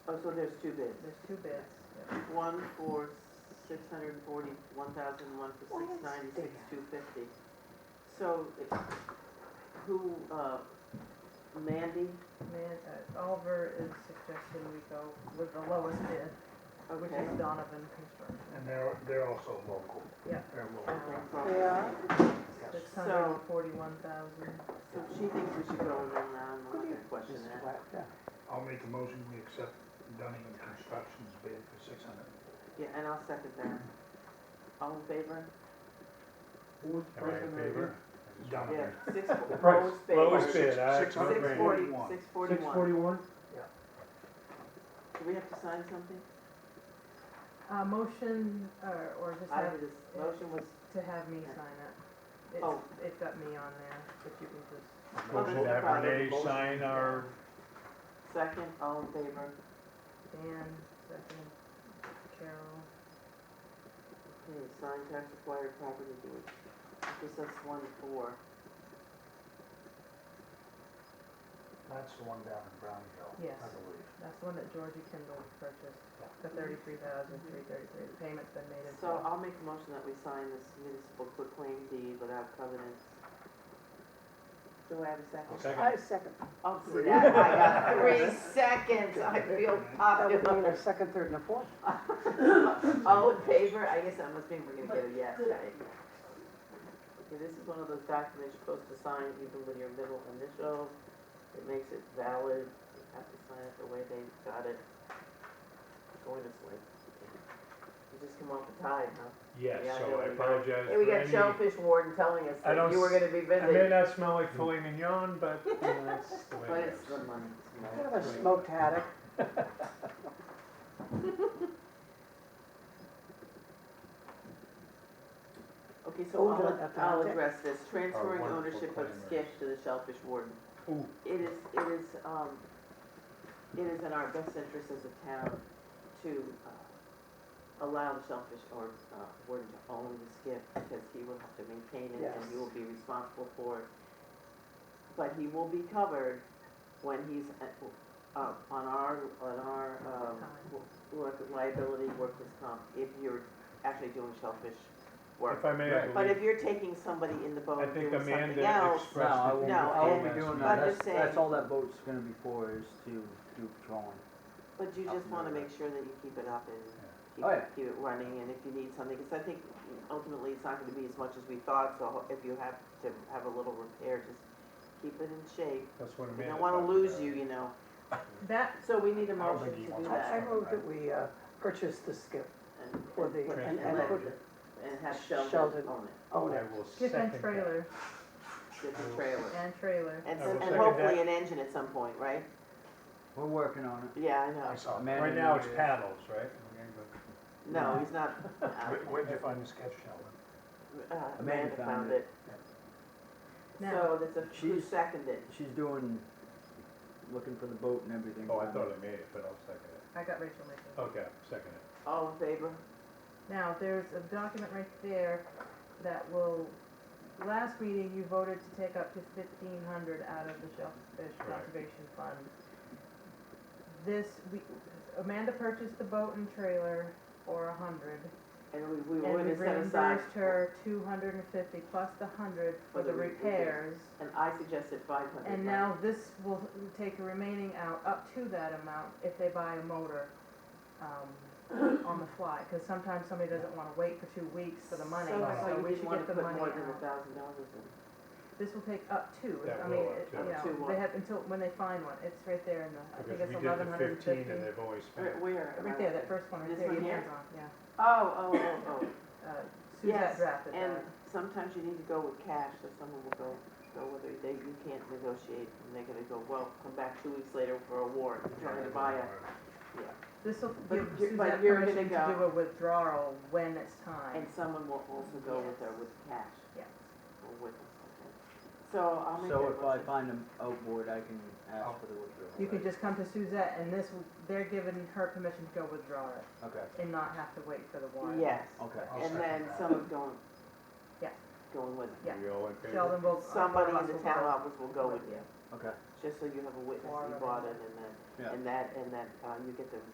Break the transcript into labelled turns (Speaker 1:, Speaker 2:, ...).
Speaker 1: Oh, so there's two bids.
Speaker 2: There's two bids.
Speaker 1: One for six hundred and forty, one thousand, one for
Speaker 2: Why
Speaker 1: six
Speaker 2: is
Speaker 1: ninety-six,
Speaker 2: there?
Speaker 1: two fifty. So, it- who, uh, Mandy,
Speaker 2: Man, uh, Oliver is suggesting we go with the lowest bid, Oh, which
Speaker 1: okay.
Speaker 2: is Donovan Construction.
Speaker 3: And they're, they're also local.
Speaker 2: Yeah.
Speaker 3: They're local.
Speaker 1: Okay, so-
Speaker 3: Yes.
Speaker 2: Six hundred and forty-one thousand.
Speaker 1: So she thinks we should go in and round and let her question that.
Speaker 3: I'll make a motion, we accept Dunning Construction's bid for six hundred.
Speaker 1: Yeah, and I'll second that. All in favor?
Speaker 3: Who's
Speaker 1: Am I in favor? Yeah,
Speaker 3: Dunning.
Speaker 1: six,
Speaker 4: price,
Speaker 1: lowest bid.
Speaker 4: lowest bid, aye.
Speaker 3: Six
Speaker 1: Six
Speaker 3: hundred
Speaker 1: forty,
Speaker 3: forty-one.
Speaker 1: six
Speaker 4: Six
Speaker 1: forty-one.
Speaker 4: forty-one?
Speaker 1: Do we have to sign something?
Speaker 2: Uh, motion, or, or just
Speaker 1: I
Speaker 2: have,
Speaker 1: have this, motion was,
Speaker 2: to have me sign it. It's,
Speaker 1: Oh.
Speaker 2: it's got me on there, but you can just,
Speaker 1: Oh, there's no
Speaker 4: Motion that
Speaker 1: problem.
Speaker 4: Renee sign our,
Speaker 1: second, all in favor?
Speaker 2: Dan, second, Carol.
Speaker 1: Okay, sign tax acquired property deed. This is one four.
Speaker 3: That's the one down in Brownville,
Speaker 2: Yes.
Speaker 3: I believe.
Speaker 2: That's the one that Georgie Kendall purchased, the thirty-three thousand, three thirty-three. The payment's been made in
Speaker 1: So
Speaker 2: full.
Speaker 1: I'll make a motion that we sign this municipal quitclaim deed without covenants. Do I have a second?
Speaker 5: I
Speaker 3: I'll second.
Speaker 5: second,
Speaker 1: Oh, see, that, I got three seconds, I feel
Speaker 5: that would mean
Speaker 1: popular.
Speaker 5: a second, third, and a fourth.
Speaker 1: All in favor, I guess that must mean we're gonna get a yes, right? Okay, this is one of those documents you're supposed to sign even with your middle initial. It makes it valid, you have to sign it the way they got it. Going this way. You just come off the tide, huh?
Speaker 4: yes,
Speaker 1: Yeah, I know
Speaker 4: so
Speaker 1: we
Speaker 4: I
Speaker 1: got-
Speaker 4: apologize
Speaker 1: Hey, we
Speaker 4: for
Speaker 1: got
Speaker 4: any-
Speaker 1: shellfish warden telling us
Speaker 4: I
Speaker 1: that
Speaker 4: don't
Speaker 1: you were
Speaker 4: s-
Speaker 1: gonna be
Speaker 4: I may
Speaker 1: busy.
Speaker 4: not smell like filet mignon, but you know, that's the way
Speaker 1: But
Speaker 4: it
Speaker 1: it's the
Speaker 4: goes.
Speaker 1: money, it's
Speaker 5: Kind
Speaker 1: money.
Speaker 5: of a smoked attic.
Speaker 1: Okay, so
Speaker 5: Older
Speaker 1: I'll,
Speaker 5: at the
Speaker 1: I'll
Speaker 5: outlet.
Speaker 1: address this, transferring
Speaker 3: wonderful
Speaker 1: ownership of
Speaker 3: planners.
Speaker 1: skiff to the shellfish warden.
Speaker 3: Ooh.
Speaker 1: It is, it is, um, it is in our best interest as a town to, uh, allow the shellfish or, uh, warden to own the skiff because he will have to maintain it and
Speaker 5: Yes.
Speaker 1: he will be responsible for it. But he will be covered when he's, at- uh, on our, on our, um,
Speaker 2: Time.
Speaker 1: work, liability, workers' comp, if you're actually doing shellfish work.
Speaker 4: If I may, I
Speaker 1: But
Speaker 3: Right.
Speaker 4: believe-
Speaker 1: if you're taking somebody in the
Speaker 4: I
Speaker 1: boat doing
Speaker 4: think
Speaker 1: something
Speaker 4: Amanda
Speaker 1: else,
Speaker 4: expressed.
Speaker 6: No, I
Speaker 4: it
Speaker 6: won't,
Speaker 1: No,
Speaker 6: I won't
Speaker 4: last
Speaker 6: be doing
Speaker 4: week.
Speaker 1: I'm
Speaker 6: that, that's,
Speaker 1: just
Speaker 6: that's
Speaker 1: saying.
Speaker 6: all that boat's gonna be for, is to do patrolling.
Speaker 1: but you just wanna make sure that you keep it up and keep,
Speaker 6: Oh, yeah.
Speaker 1: keep it running, and if you need something, cause I think ultimately it's not gonna be as much as we thought, so if you have to have a little repair, just keep it in shape.
Speaker 4: That's what
Speaker 1: We
Speaker 4: Amanda.
Speaker 1: don't wanna
Speaker 4: talked
Speaker 1: lose
Speaker 4: about.
Speaker 1: you, you know,
Speaker 2: That,
Speaker 1: so we need a
Speaker 3: don't
Speaker 1: motion
Speaker 3: think he
Speaker 1: to do
Speaker 3: wants
Speaker 5: I, I
Speaker 1: that.
Speaker 5: move that we uh, purchase the skip
Speaker 1: and-
Speaker 5: for
Speaker 1: and
Speaker 5: the,
Speaker 1: put-
Speaker 5: and,
Speaker 1: And
Speaker 5: and
Speaker 1: let-
Speaker 5: put,
Speaker 1: and have Sheldon
Speaker 5: Sheldon.
Speaker 1: own it,
Speaker 4: I
Speaker 5: own it.
Speaker 4: will
Speaker 2: skip
Speaker 4: second
Speaker 2: and
Speaker 4: that.
Speaker 2: trailer,
Speaker 1: get
Speaker 4: I
Speaker 1: the
Speaker 4: will-
Speaker 1: trailer.
Speaker 2: and trailer.
Speaker 1: And,
Speaker 4: I
Speaker 1: some-
Speaker 4: will
Speaker 1: and
Speaker 4: second that.
Speaker 1: hopefully an engine at some point, right?
Speaker 6: We're working on it.
Speaker 1: Yeah, I know,
Speaker 3: I saw,
Speaker 6: Amanda
Speaker 4: Right now, it's
Speaker 6: knows.
Speaker 4: paddles, right? We're gonna go-
Speaker 1: no, he's not, uh,
Speaker 3: Where- where'd you find the sketch, Sheldon?
Speaker 1: uh, Amanda
Speaker 6: Amanda
Speaker 1: found
Speaker 6: found
Speaker 1: it. So
Speaker 2: Now-
Speaker 1: that's a, who
Speaker 6: She's-
Speaker 1: seconded?
Speaker 6: She's doing, looking for the boat and everything.
Speaker 4: Oh, I thought I made it, but I'll second it.
Speaker 2: I got Rachel Mitchell.
Speaker 4: Okay, second it.
Speaker 1: All in favor?
Speaker 2: Now, there's a document right there that will, last meeting, you voted to take up to fifteen hundred out of the Shellfish
Speaker 4: Right.
Speaker 2: Conservation Fund. This, we, Amanda purchased the boat and trailer for a hundred.
Speaker 1: And we, we
Speaker 2: And
Speaker 1: would
Speaker 2: we
Speaker 1: have set aside.
Speaker 2: reimbursed her two hundred and fifty plus the hundred for
Speaker 1: For the
Speaker 2: the
Speaker 1: re- repairs.
Speaker 2: repairs.
Speaker 1: And I suggested five hundred.
Speaker 2: And now this will take the remaining out up to that amount if they buy a motor, um, on the fly. Cause sometimes somebody doesn't wanna wait for two weeks for the money,
Speaker 1: So I
Speaker 2: so
Speaker 1: thought you
Speaker 2: we should
Speaker 1: didn't wanna
Speaker 2: get the
Speaker 1: put
Speaker 2: money
Speaker 1: more than a
Speaker 2: out.
Speaker 1: thousand dollars in.
Speaker 2: This will take up to,
Speaker 4: That
Speaker 2: I
Speaker 4: will
Speaker 2: mean,
Speaker 4: up
Speaker 2: it-
Speaker 4: to.
Speaker 2: you
Speaker 1: Up to
Speaker 2: know,
Speaker 1: what?
Speaker 2: they have until, when they find one, it's right there in the, I think
Speaker 4: Because
Speaker 2: it's
Speaker 4: we did
Speaker 2: eleven
Speaker 4: the
Speaker 2: hundred and
Speaker 4: fifteen
Speaker 2: fifty.
Speaker 4: and they've always
Speaker 1: Where,
Speaker 4: spent.
Speaker 1: where? am I
Speaker 2: Right there,
Speaker 1: looking?
Speaker 2: that first one right
Speaker 1: This
Speaker 2: there,
Speaker 1: one
Speaker 2: your
Speaker 1: here?
Speaker 2: hands on, yeah.
Speaker 1: Oh, oh, oh, oh.
Speaker 2: Uh,
Speaker 1: Yes,
Speaker 2: Suzette drafted
Speaker 1: And
Speaker 2: that.
Speaker 1: sometimes you need to go with cash, so someone will go, go with it, they, you can't negotiate, and they're gonna go, well, come back two weeks later for a warrant, you're trying to buy a,
Speaker 2: This will
Speaker 1: But
Speaker 2: give
Speaker 1: you're- but
Speaker 2: Suzette
Speaker 1: you're gonna
Speaker 2: permission to
Speaker 1: go-
Speaker 2: do a withdrawal when it's
Speaker 1: and
Speaker 2: time.
Speaker 1: someone will also go with her with cash.
Speaker 2: Yes.
Speaker 1: Or with, okay. So I'll make that
Speaker 6: So if I
Speaker 1: motion.
Speaker 6: find an outboard, I can ask for the withdrawal.
Speaker 2: You can just come to Suzette and this, will- they're giving her permission to go withdraw it
Speaker 6: Okay,
Speaker 2: and not have to wait for the warrant.
Speaker 1: Yes,
Speaker 6: okay.
Speaker 3: I'll
Speaker 1: and
Speaker 3: second
Speaker 1: then
Speaker 3: that.
Speaker 1: someone's going.
Speaker 2: Yeah.
Speaker 1: Going with it.
Speaker 2: Yeah. uh,
Speaker 4: We all in favor?
Speaker 2: Sheldon will.
Speaker 1: Somebody in the town office will go with you.
Speaker 6: Okay.
Speaker 1: just so you have a witness that you
Speaker 2: Warrant.
Speaker 1: brought it and that,
Speaker 4: Yeah.
Speaker 1: and that, and that, uh, you get the